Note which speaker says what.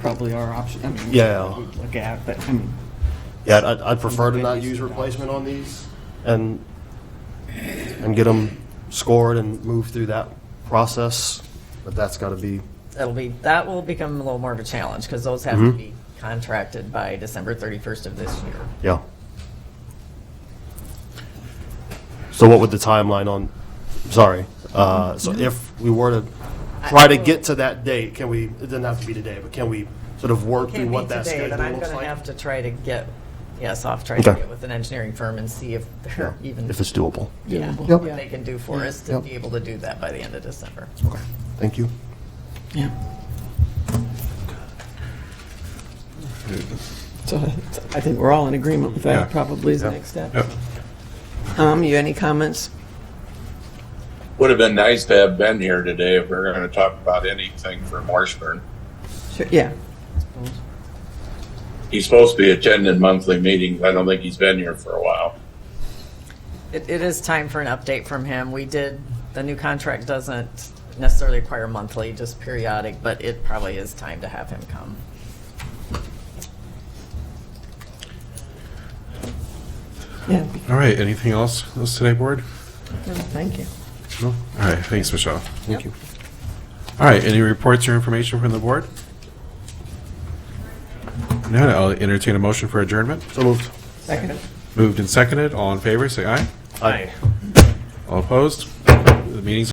Speaker 1: probably our option. I mean,
Speaker 2: Yeah.
Speaker 1: we'd Look at, but I mean,
Speaker 2: Yeah, I'd, I'd prefer to not use replacement on these and, and get them scored and move through that process, but that's gotta be,
Speaker 3: That'll be, that will become a little more of a challenge, because those have
Speaker 2: Mm-hmm.
Speaker 3: to be contracted by December 31st of this year.
Speaker 2: yeah. So what would the timeline on, sorry, uh, so if we were to try to get to that date, can we, it doesn't have to be today, but can we sort of work through
Speaker 3: Can't be
Speaker 2: what that
Speaker 3: today,
Speaker 2: schedule
Speaker 3: then I'm
Speaker 2: looks
Speaker 3: going to
Speaker 2: like?
Speaker 3: have to try to get, yes, off, try to
Speaker 2: Okay.
Speaker 3: get with an engineering firm and see if they're even,
Speaker 2: If it's doable.
Speaker 3: yeah,
Speaker 2: Yep. Mm-hmm.
Speaker 3: what they can do for us to
Speaker 2: Yep.
Speaker 3: be able to do that by the end of December.
Speaker 2: Okay, thank you.
Speaker 1: yeah.
Speaker 4: So I think we're all in agreement with
Speaker 5: Yeah.
Speaker 4: that probably is the
Speaker 2: Yeah.
Speaker 4: next step. Tom, Um, you any comments?
Speaker 5: Would have been nice to have been here today if we are going to talk about anything from Washburn.
Speaker 4: Sure, Yeah,
Speaker 5: He's supposed to be attending monthly meetings. I don't think he's been here for a while.
Speaker 3: It, it is time for an update from him. We did, the new contract doesn't necessarily require monthly, just periodic, but it probably is time to have him come.
Speaker 4: yeah,
Speaker 6: All right, anything else else today, board?
Speaker 4: thank you.
Speaker 6: No? All right, thanks, Michelle. Thank you. All right, any reports or information from the board? No, I'll entertain a motion for adjournment.
Speaker 2: So moved.
Speaker 4: Second.
Speaker 6: Moved and seconded, all in favor, say aye.
Speaker 2: Aye.
Speaker 6: All opposed? The meeting's